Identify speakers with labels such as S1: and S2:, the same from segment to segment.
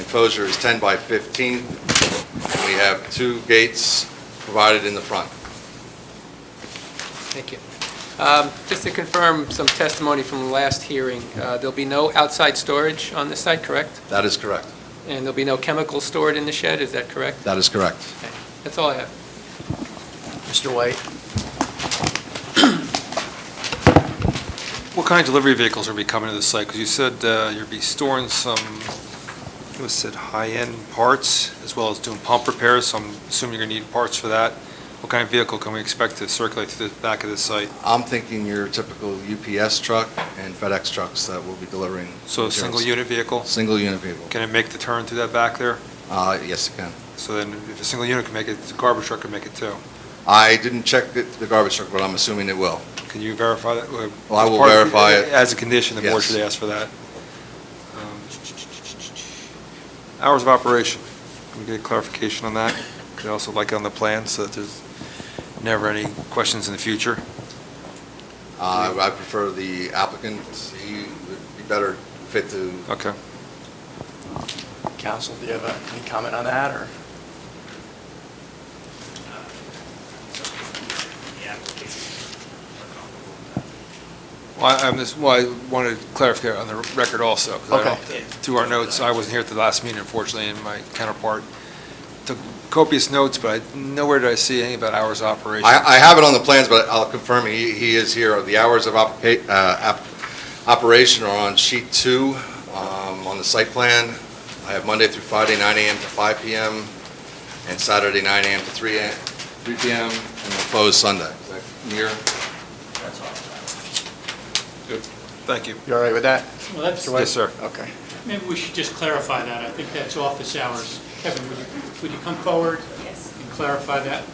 S1: enclosure is 10 by 15, and we have two gates provided in the front.
S2: Thank you. Um, Just to confirm some testimony from the last hearing, uh, there'll be no outside storage on this site, correct?
S1: That is correct.
S2: And there'll be no chemicals stored in the shed, is that correct?
S1: That is correct.
S2: Okay. That's all I have.
S3: Mr. White?
S4: What kind of delivery vehicles are we coming to the site? Because you said uh, you'll be storing some, it was said high-end parts, as well as doing pump repairs, so I'm assuming you're going to need parts for that. What kind of vehicle can we expect to circulate through the back of the site?
S1: I'm thinking your typical UPS truck and FedEx trucks that will be delivering.
S4: So a
S1: materials.
S4: single-unit vehicle?
S1: Single unit vehicle.
S4: Can it make the turn through that back there?
S1: Uh, Yes, it can.
S4: So then, if a single unit can make it, the garbage truck can make it too.
S1: I didn't check the- the garbage truck, but I'm assuming it will.
S4: Can you verify that? Well,
S1: Well, I will
S4: part of-
S1: verify it.
S4: As a condition, the board
S1: Yes.
S4: should ask for that. Um, Hours of operation, can we get clarification on that? Could also like on the plan, so that there's never any questions in the future.
S1: Uh, I prefer the applicant, he would be better fit to,
S4: Okay.
S3: Counsel, do you have uh, any comment on that, or?
S4: Well, I- I'm just, well, I wanted clarification on the record also. 'cause I don't-
S3: Okay.
S4: Through our notes, I wasn't here at the last meeting unfortunately, and my counterpart took copious notes, but I- nowhere did I see anything about hours of operation.
S1: I, I have it on the plans, but I'll confirm, he, he is here. The hours of opca- uh, op- operation are on sheet two, um, on the site plan. I have Monday through Friday, 9 AM to 5 PM, and Saturday, 9 AM to 3 a.m., 3 PM, and we'll close Sunday. Is that near?
S4: Thank you.
S3: You all right with that?
S5: Well, that's,
S3: Mr. White?
S4: Yes, sir.
S3: Okay.
S5: maybe we should just clarify that. I think that's office hours. Kevin, would you, would you come forward
S6: Yes.
S5: and clarify that?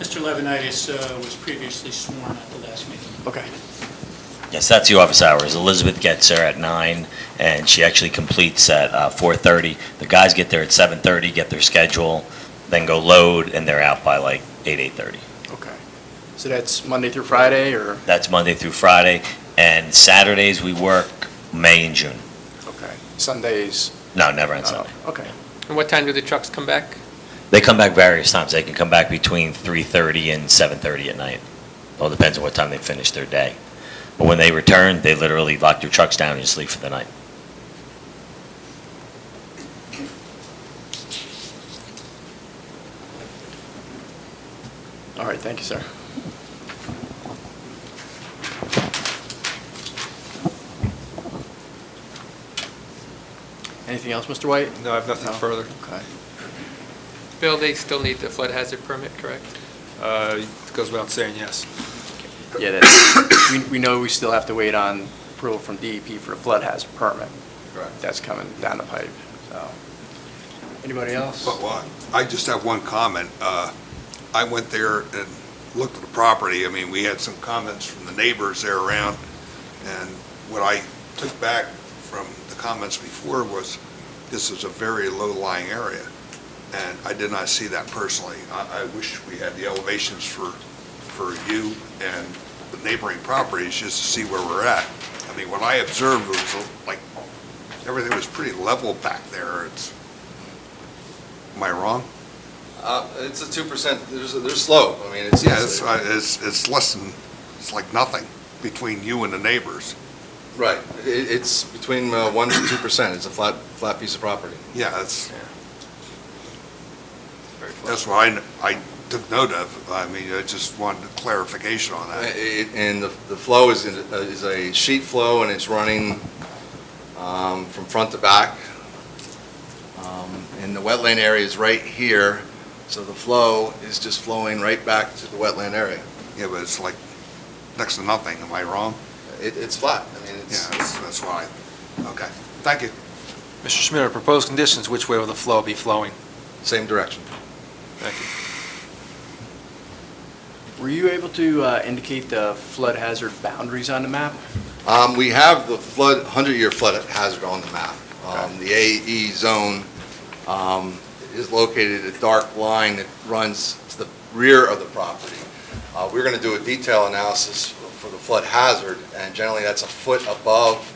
S5: Mr. Levinitis uh, was previously sworn at the last meeting.
S3: Okay.
S7: Yes, that's the office hours. Elizabeth gets there at nine, and she actually completes at uh, 4:30. The guys get there at 7:30, get their schedule, then go load, and they're out by like 8, 8:30.
S3: Okay. So that's Monday through Friday, or?
S7: That's Monday through Friday, and Saturdays, we work May and June.
S3: Okay. Sundays?
S7: No, never on
S3: not-
S7: Sunday.
S3: Okay.
S2: And what time do the trucks come back?
S7: They come back various times. They can come back between 3:30 and 7:30 at night. All depends on what time they finish their day. But when they return, they literally lock their trucks down and just leave for the night.
S3: All right, thank you, sir. Anything else, Mr. White?
S4: No, I have nothing further.
S3: Okay.
S2: Bill, they still need the flood hazard permit, correct?
S4: Uh, it Goes without saying, yes.
S3: Yeah, that's, we, we know we still have to wait on approval from DEP for a flood hazard permit.
S1: Correct.
S3: That's coming down the pipe, so. Anybody else?
S8: But, well, I just have one comment. Uh, I went there and looked at the property. I mean, we had some comments from the neighbors there around, and what I took back from the comments before was, this is a very low-lying area, and I did not see that personally. I, I wish we had the elevations for, for you and the neighboring properties, just to see where we're at. I mean, what I observed was, like, everything was pretty level back there. It's, am I wrong?
S1: Uh, It's a 2%, there's, a- there's slope, I mean, it's.
S8: Yeah, it's, uh, it's, it's less than, it's like nothing between you and the neighbors.
S1: Right, It- it's between uh, 1% to 2%, it's a flat, flat piece of property.
S8: Yeah, that's, that's what I, kn- I took note of. I mean, I just wanted clarification on
S1: Uh,
S8: that.
S1: it- And the the flow is, in- uh, is a sheet flow, and it's running um, from front to back. Um, And the wetland area is right here, so the flow is just flowing right back to the wetland area.
S8: Yeah, but it's like next to nothing. Am I wrong?
S1: It- It's flat, I mean,
S8: Yeah,
S1: it's,
S8: that's, that's why. Okay, thank you.
S4: Mr. Schmidt, proposed conditions, which way will the flow be flowing?
S1: same direction.
S4: Thank you.
S3: Were you able to uh, indicate the flood hazard boundaries on the map?
S1: Um, We have the flood, 100-year flood hazard on the map. Um, The AE zone um, is located, a dark line that runs to the rear of the property. Uh, We're going to do a detail analysis for the flood hazard, and generally, that's a foot above